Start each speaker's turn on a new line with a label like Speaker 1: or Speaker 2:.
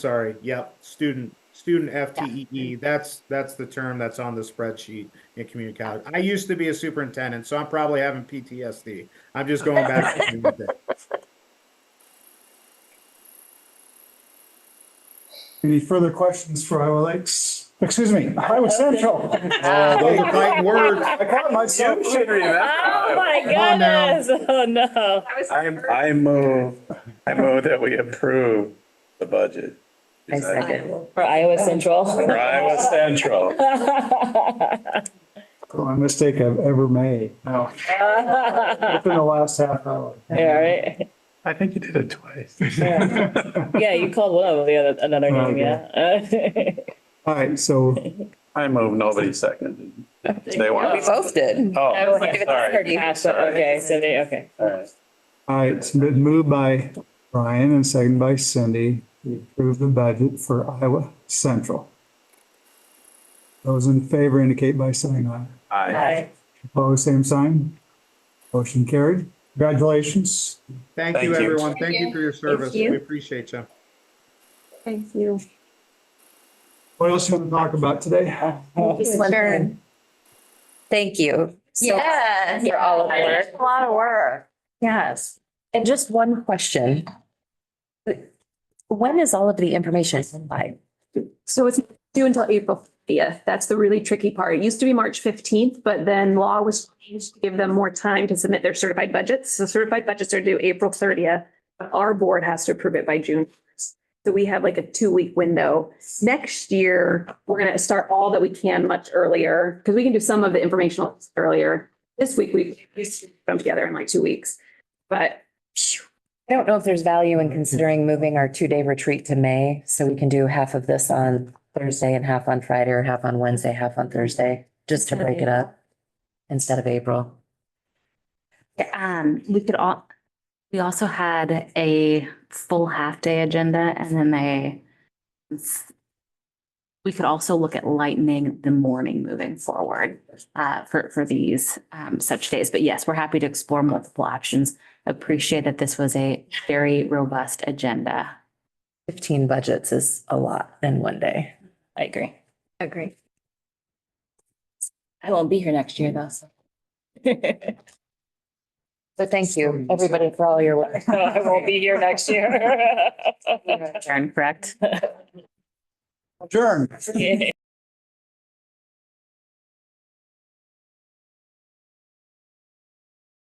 Speaker 1: Sorry, yep, student, student FTEE, E. that's, that's the term that's on the spreadsheet in community college. I used to be a superintendent, so I'm probably having PTSD. I'm just going back. to community.
Speaker 2: Any further questions for Iowa Lakes? Excuse me, Iowa Central.
Speaker 1: Oh, Those are fighting words.
Speaker 2: I caught myself.
Speaker 3: You should remember.
Speaker 4: Oh my
Speaker 1: Come on now.
Speaker 4: goodness, oh no.
Speaker 3: I'm, I move, I move that we approve the budget.
Speaker 5: I second.
Speaker 4: For Iowa Central.
Speaker 3: For Iowa Central.
Speaker 2: A mistake I've ever made. No,
Speaker 4: Yeah,
Speaker 2: within the last half hour.
Speaker 4: right.
Speaker 3: I think you did it twice.
Speaker 4: Yeah. Yeah, you called one of them the other, another
Speaker 2: Oh,
Speaker 4: name, yeah.
Speaker 2: All right, so
Speaker 3: I move, nobody seconded. They
Speaker 5: We
Speaker 3: want.
Speaker 5: both did.
Speaker 3: Oh,
Speaker 4: I was like, if it's
Speaker 3: sorry.
Speaker 4: Ah, so- Okay, so they, okay.
Speaker 3: All right.
Speaker 2: All right, it's been moved by Brian and seconded by Cindy to approve the budget for Iowa Central. Those in favor indicate by saying aye.
Speaker 3: Aye.
Speaker 2: Opposed, same sign. Motion carried. Congratulations.
Speaker 1: Thank you,
Speaker 3: Thank you.
Speaker 1: everyone. Thank you for your service.
Speaker 5: you.
Speaker 1: We appreciate you.
Speaker 5: Thank you.
Speaker 2: What else you want to talk about today?
Speaker 5: Sure. Thank you. so much
Speaker 4: Yeah.
Speaker 5: For all of the work. A lot of work. Yes. And just one question. When is all of the information supplied?
Speaker 6: So it's due until April fiftieth. That's the really tricky part. It used to be March fifteenth, but then law was changed to give them more time to submit their certified budgets. So certified budgets are due April thirtieth. But our board has to approve it by June. 1st. So we have like a two-week window. Next year, we're gonna start all that we can much earlier, because we can do some of the informational earlier. This week, we we come together in like two weeks, but
Speaker 5: I don't know if there's value in considering moving our two-day retreat to May, so we can do half of this on Thursday and half on Friday, or half on Wednesday, half on Thursday, just to break it up instead of April.
Speaker 7: Um, we could all, we also had a full half-day agenda and then they we could also look at lightening the morning moving forward uh, for, for these um, such days. But yes, we're happy to explore multiple options. Appreciate that this was a very robust agenda.
Speaker 5: Fifteen budgets is a lot in one day.
Speaker 7: I agree.
Speaker 5: Agree.
Speaker 7: I won't be here next year though. so.
Speaker 5: So thank you, everybody, for all your work.
Speaker 4: No, I won't be here next year.
Speaker 7: Adjourn, correct?
Speaker 2: Adjourn.
Speaker 4: Okay.